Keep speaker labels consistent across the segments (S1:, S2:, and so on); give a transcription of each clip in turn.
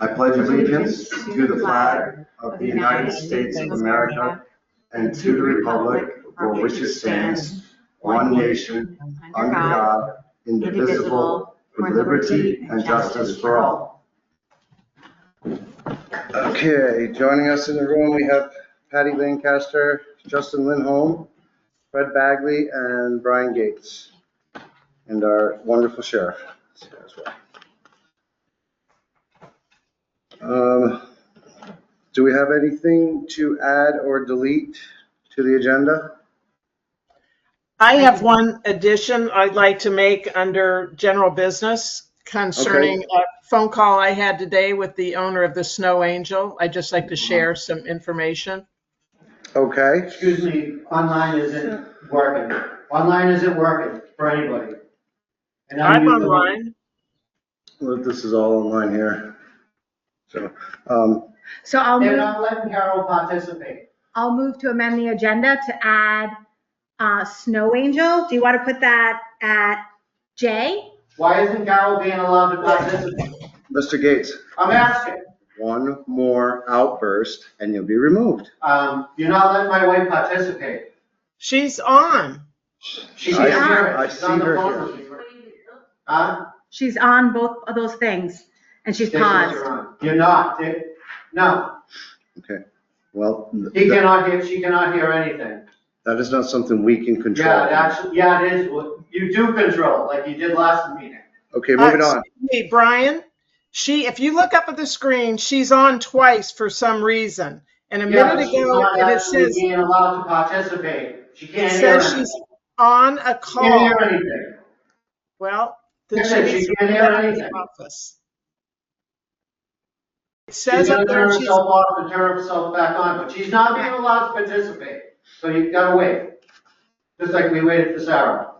S1: I pledge allegiance to the flag of the United States of America and to the republic for which it stands, one nation, under God, indivisible, with liberty and justice for all. Okay, joining us in the room, we have Patty Lancaster, Justin Lindholm, Fred Bagley, and Brian Gates, and our wonderful sheriff is here as well. Um, Do we have anything to add or delete to the agenda?
S2: I have one addition I'd like to make under general business concerning a phone call I had today with the owner of the Snow Angel. I'd just like to
S1: Uh-huh.
S2: share some information.
S1: Okay,
S3: Excuse me, online isn't working. Online isn't working for anybody. And
S2: I'm
S3: using-
S2: online.
S1: well, this is all online here. So, um,
S4: So I'll
S3: They're
S4: move,
S3: not letting Carol participate.
S4: I'll move to amend the agenda to add uh, Snow Angel. Do you want to put that at J?
S3: Why isn't Carol being allowed to participate?
S1: Mr. Gates,
S3: I'm asking.
S1: one more outburst and you'll be removed.
S3: Um, you're not letting my wife participate.
S2: She's on.
S1: I
S3: She can't
S4: see-
S3: hear
S1: I
S3: it. She's on
S1: see
S3: the
S1: her
S3: phone with me. Huh?
S4: She's on both of those things and she's
S3: Yes, yes,
S4: paused.
S3: you're on. You're not. They- No,
S1: Well, th-
S3: he cannot hear, she cannot hear anything.
S1: that is not something we can control.
S3: Yeah, it actually, yeah, it is. what- You do control, like you did last meeting.
S1: Okay, moving
S2: Uh,
S1: on.
S2: excuse Me, Brian, she, if you look up at the screen, she's on twice for some reason. And a
S3: Yeah,
S2: minute
S3: she's
S2: ago,
S3: not
S2: and it
S3: actually
S2: says,
S3: Being allowed to participate. She
S2: it
S3: can't hear
S2: says
S3: anything.
S2: she's on a
S3: She Can't
S2: call.
S3: hear anything.
S2: Well, the
S3: Listen, she
S2: chief's
S3: can't hear anything.
S2: office. It
S3: She's
S2: says
S3: gonna
S2: up
S3: turn
S2: there she's
S3: herself off and turn herself back on, but she's not being allowed to participate. So you've gotta wait. Just like we waited for Sarah.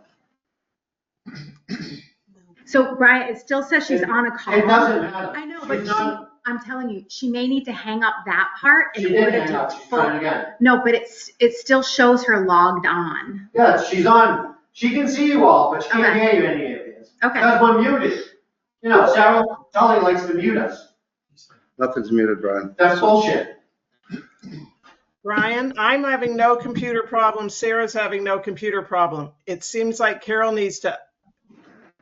S4: So Brian, it still says she's on a call.
S3: It doesn't matter.
S4: I know,
S3: She's
S4: but she,
S3: not-
S4: I'm telling you, she may need to hang up that part
S3: She
S4: in
S3: did
S4: order
S3: hang up,
S4: to.
S3: she's trying again.
S4: No, but it's, it still shows her logged on.
S3: Yes, she's on. She can see you all, but she can't
S4: Okay.
S3: hear you any of this.
S4: Okay.
S3: Because we're muted. You know, Sarah Tully likes to mute us.
S1: Nothing's muted, Brian.
S3: That's bullshit.
S2: Brian, I'm having no computer problem. Sarah's having no computer problem. It seems like Carol needs to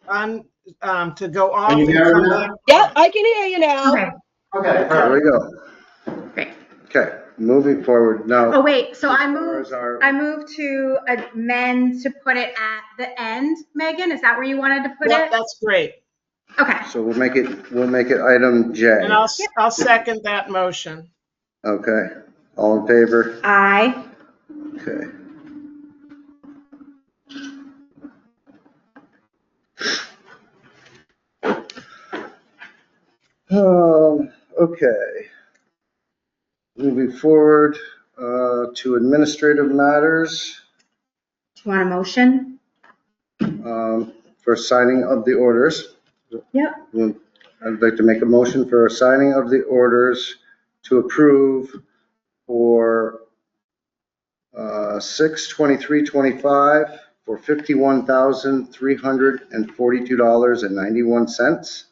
S2: un, um, to go off.
S3: Can you
S2: and
S3: hear
S2: come
S3: me
S2: back.
S5: Yep, I can hear you now.
S4: Okay,
S3: Okay,
S1: There we
S3: perfect.
S1: go.
S4: great.
S1: Okay, moving forward
S4: Oh,
S1: now.
S4: wait, so I moved.
S1: Where's our-
S4: I move to amend to put it at the end, Megan, is that where you wanted to put
S2: Yep,
S4: it?
S2: that's great.
S4: Okay,
S1: So we'll make it, we'll make it item J.
S2: And I'll, s- I'll second that motion.
S1: Okay, all in favor?
S4: I,
S1: Okay. Um, okay. Moving forward, uh, to administrative matters,
S4: do you want a motion?
S1: um, for signing of the orders.
S4: Yep.
S1: I'd like to make a motion for a signing of the orders to approve for uh, six twenty-three twenty-five for fifty-one thousand three hundred and forty-two dollars and ninety-one cents.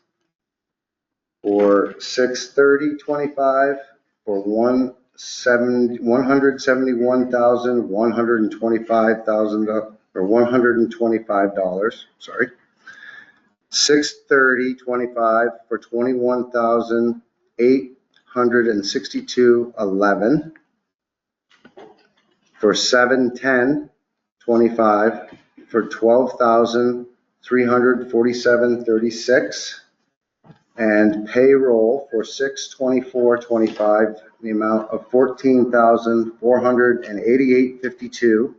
S1: Or six thirty twenty-five for one seven, one hundred seventy-one thousand, one hundred and twenty-five thousand, or one hundred and twenty-five dollars, sorry. Six thirty twenty-five for twenty-one thousand eight hundred and sixty-two eleven. For seven ten twenty-five for twelve thousand three hundred forty-seven thirty-six. And payroll for six twenty-four twenty-five, the amount of fourteen thousand four hundred and eighty-eight fifty-two.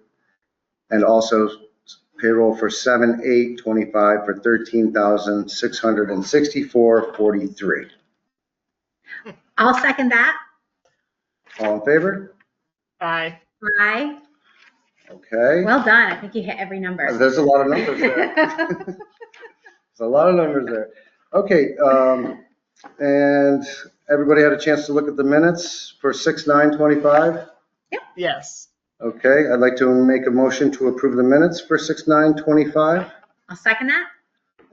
S1: And also payroll for seven, eight, twenty-five for thirteen thousand, six hundred and sixty-four, forty-three.
S4: I'll second that,
S1: All in favor?
S2: Aye.
S4: I,
S1: Okay.
S4: well done, I think you hit every number.
S1: There's a lot of numbers there. There's a lot of numbers there. Okay, um, and everybody had a chance to look at the minutes for six, nine, twenty-five?
S2: Yes.
S1: Okay, I'd like to make a motion to approve the minutes for six, nine, twenty-five.
S4: I'll second that,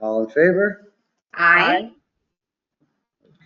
S1: All in favor?
S4: I,